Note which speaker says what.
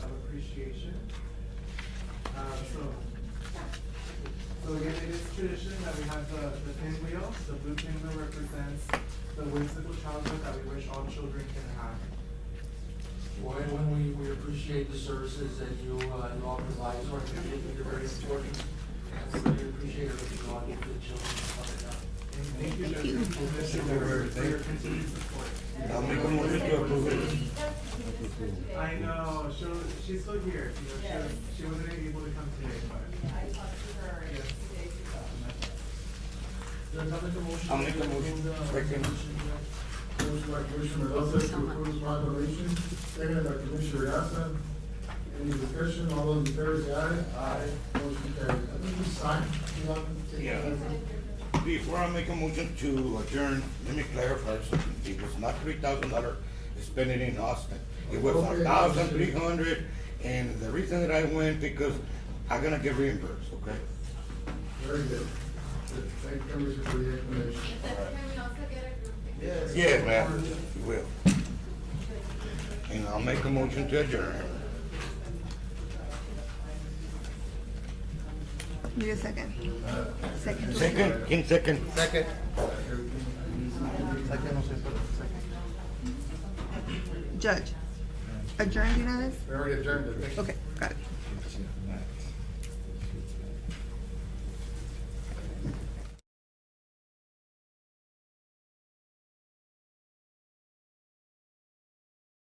Speaker 1: Uh, So again, it is tradition that we have the, the pinwheel. The blue pinwheel represents the whimsical childhood that we wish all children can have.
Speaker 2: Well, and when we, we appreciate the services that you, uh, you all provide to our community, they're very important. And we really appreciate everything you all do for the children of our town.
Speaker 1: And thank you, Judge, for your continued support.
Speaker 3: I'll make a motion to approve it.
Speaker 1: I know, she, she's still here, you know,
Speaker 4: Yes.
Speaker 1: she, she wasn't able to come today, but.
Speaker 4: I talked to her two days ago.
Speaker 2: Does that make a motion?
Speaker 3: I'll make a motion.
Speaker 2: And, uh,
Speaker 3: Second.
Speaker 5: Motion by Commissioner Mendoza to approve this proclamation, seconded by Commissioner Gasa. Any discussion, all those in favor say aye. Aye. Motion carries. I think we signed, you want to take?
Speaker 3: Yeah. Before I make a motion to adjourn, let me clarify something. It was not three thousand dollar spending in Austin. It was
Speaker 5: Okay.
Speaker 3: a thousand three hundred, and the reason that I went because I'm gonna get reimbursed, okay?
Speaker 5: Very good. Thank you, Commissioner, for the explanation.
Speaker 1: Yes.
Speaker 3: Yes, ma'am, you will. And I'll make a motion to adjourn.
Speaker 6: Need a second. Second.
Speaker 3: Second, King second. Second.
Speaker 6: Judge. Adjourned, United?
Speaker 5: Very agenda.
Speaker 6: Okay.